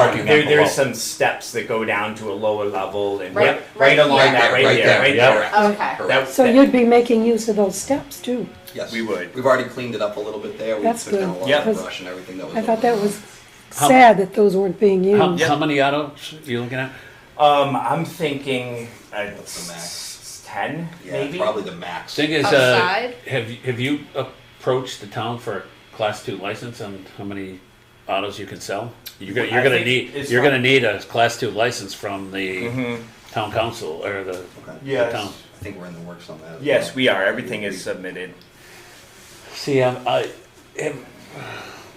parking There, there up below. there's some steps that go down to a lower level and Right- right, right right along here. that, right there, right yeah. there. Okay. Correct. That- So you'd be making use of those steps too? Yes. We would. We've already cleaned it up a little bit there. We That's took down a good. lot Yeah. of brush and everything that was. I thought over there. that was How- sad that those weren't being How, used. how many autos are you looking at? Um, I'm thinking uh, What's the max? ten, Yeah, maybe. probably the max. Thing is, uh, Outside? have, you- have you approached the town for a class two license on how many autos you can sell? You're gonna, you're I gonna think need, it's you're not- gonna need a class two license from the Mhm. town council or the Okay. the Yes. town. I think we're in the works on that. as Yes, well. we are. Everything is submitted. See, um, I, if-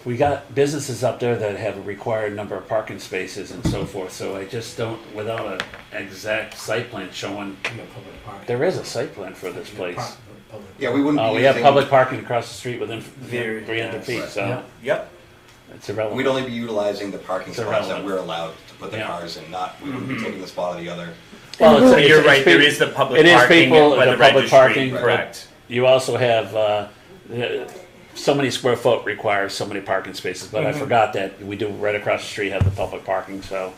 we got businesses up there that have a required number of parking spaces and so forth, so I just don't, without an exact site plan showing, We got public parking. there is a site plan for this We got place. park- public- Yeah, we wouldn't. Uh, be we have using- public parking across the street within There, three hundred yes. feet, Yeah. so Yep. it's We'd irrelevant. only be utilizing the parking It's spots that irrelevant. we're allowed to put the Yeah. cars in. Not we wouldn't be taking the spot of the other. Well, it's- So it's- you're it's right. There peop- is the public it is parking people, by the the public registry. parking, but- correct. You also have, uh, uh, so many square foot requires so many parking spaces, but I forgot that we do right across the street have the public parking, so,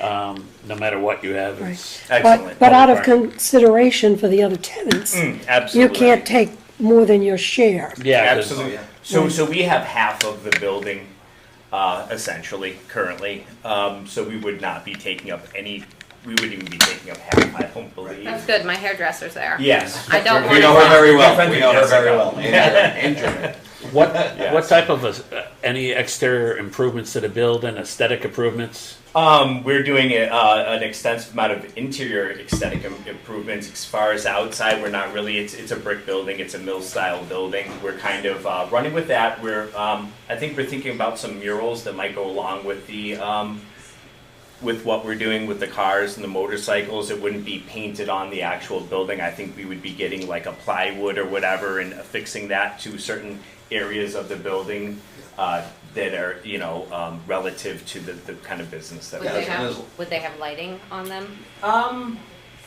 um, no matter what you have, it's. But- Excellent. But out of Public parking. consideration for the other tenants, Hmm, Mm, you absolutely. can't take more than your share. Yeah, 'cause- Absolutely. Oh, yeah. So, so we have half of the building, uh, essentially, currently. Um, so we would not be taking up any, we wouldn't even be taking up half, I don't believe. That's good. My hairdresser's there. Yes. I don't We know her want very well. friends We with know her Jessica. very well. And German. And German. What, Yeah. what type of, uh, any exterior improvements to the building, aesthetic improvements? Um, we're doing a, uh, an extensive amount of interior aesthetic im- improvements. As far as outside, we're not really. It's it's a brick building. It's a mill style building. We're kind of uh, running with that. We're um, I think we're thinking about some murals that might go along with the um, with what we're doing with the cars and the motorcycles. It wouldn't be painted on the actual building. I think we would be getting like a plywood or whatever and affixing that to certain areas of the building uh, that are, you know, um, relative to the, the kind of business that Would Yeah, they we're that's have what it is. Would they have lighting on them? Um,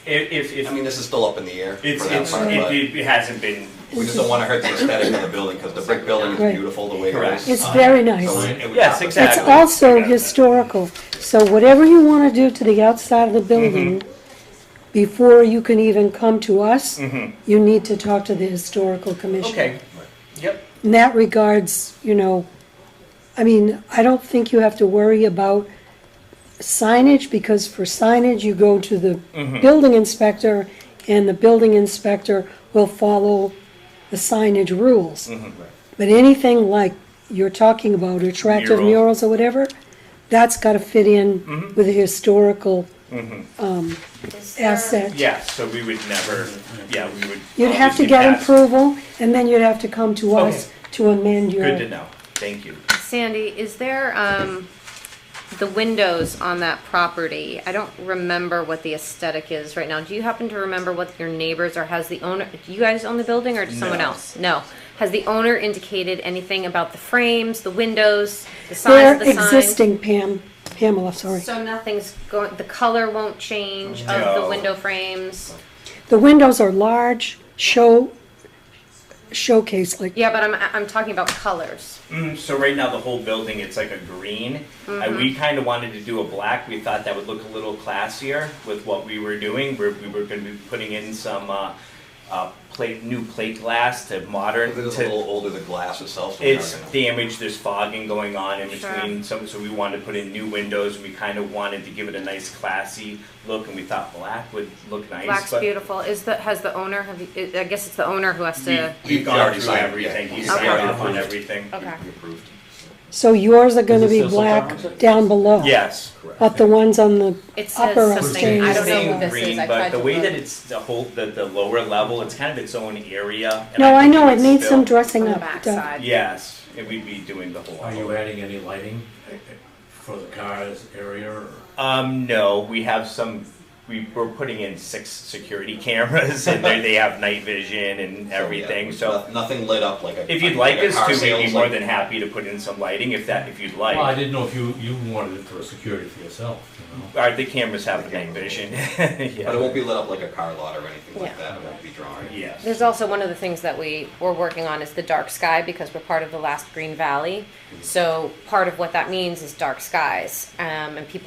if, if, if I mean, this is still up in the air. it's, for that it's, part, it, but it, hasn't been. we just don't want to hurt the aesthetic of the building because the brick building Right. is beautiful the way it Correct. is. It's very So nice. it- it would Yes, not look exactly. It's bad. also historical, so whatever you want to do to the outside of the building, Mm-hmm. before you can even come to us, you need to talk to the historical commission. Mm-hmm. Okay. Yep. in that regards, you know, I mean, I don't think you have to worry about signage, because for signage, you go to the Mm-hmm. building inspector, and the building inspector will follow the signage rules. Mm-hmm. But anything like you're talking about, attractive Mural. Mm-hmm. murals or whatever, that's gotta fit in with the historical Is there- asset. Yeah. So we would never. Yeah, we would. You'd have to obviously get pass. approval, and then you'd have to come to Okay. us to amend your. Good to know. Thank you. Sandy, is there um, the windows on that property? I don't remember what the aesthetic is right now. Do you happen to remember what your neighbors or has the owner? Do you guys own the building or does someone No. else? No. Has the owner indicated anything about the frames, the windows, the size They're of the sign? existing, Pam, Pamela, sorry. So nothing's going. The color won't change of No. the window frames. The windows are large, show, showcase, like, Yeah, but I'm I'm talking about colors. Mm, so right now the whole building it's like a green. Uh, Mm-hmm. we kind of wanted to do a black. We thought that would look a little classier with what we were doing. We're, we were going to be putting in some uh, uh, plate, new plate glass to modern. It is a to- little older, the glass itself. so we're not it's gonna- damaged. There's fogging going on in Sure. between. So, so we wanted to put in new windows. We kind of wanted to give it a nice classy look, and we thought black would look nice. Black's but beautiful. Is the has the owner? Have you, I guess it's the owner who has We, to. we've He's gone already through signed, yeah. everything. He He's signed already off on approved. everything. okay. We approved. so yours are gonna Is it be still some black problems? down below. Yes. But the ones on the It says upper something. upstairs. I don't know Same who this green, is. I tried But the to way look. that it's the whole, the, the lower level, it's kind of its own area. and No, I think know, it it's needs still- some dressing On the up. back Doug. side. Yes, and we'd be doing the whole. Are you adding any lighting eh, eh, for the cars area or? Um, no, we have some we were putting in six security cameras and they they have night vision and So, yeah, everything. it's So noth- Nothing lit up like a. if you'd like a us car to, we'd be sales, more like- than happy to put in some lighting if that if you'd like. Well, I didn't know if you, you wanted it for security for yourself, you know? Our, the cameras have night vision. yeah. But it won't be lit up like a car lot or anything like Yeah. that, it won't be drawing. Yes. There's also one of the things that we were working on is the dark sky because we're part of the last Green Valley. So part of what that means is dark skies, um, and people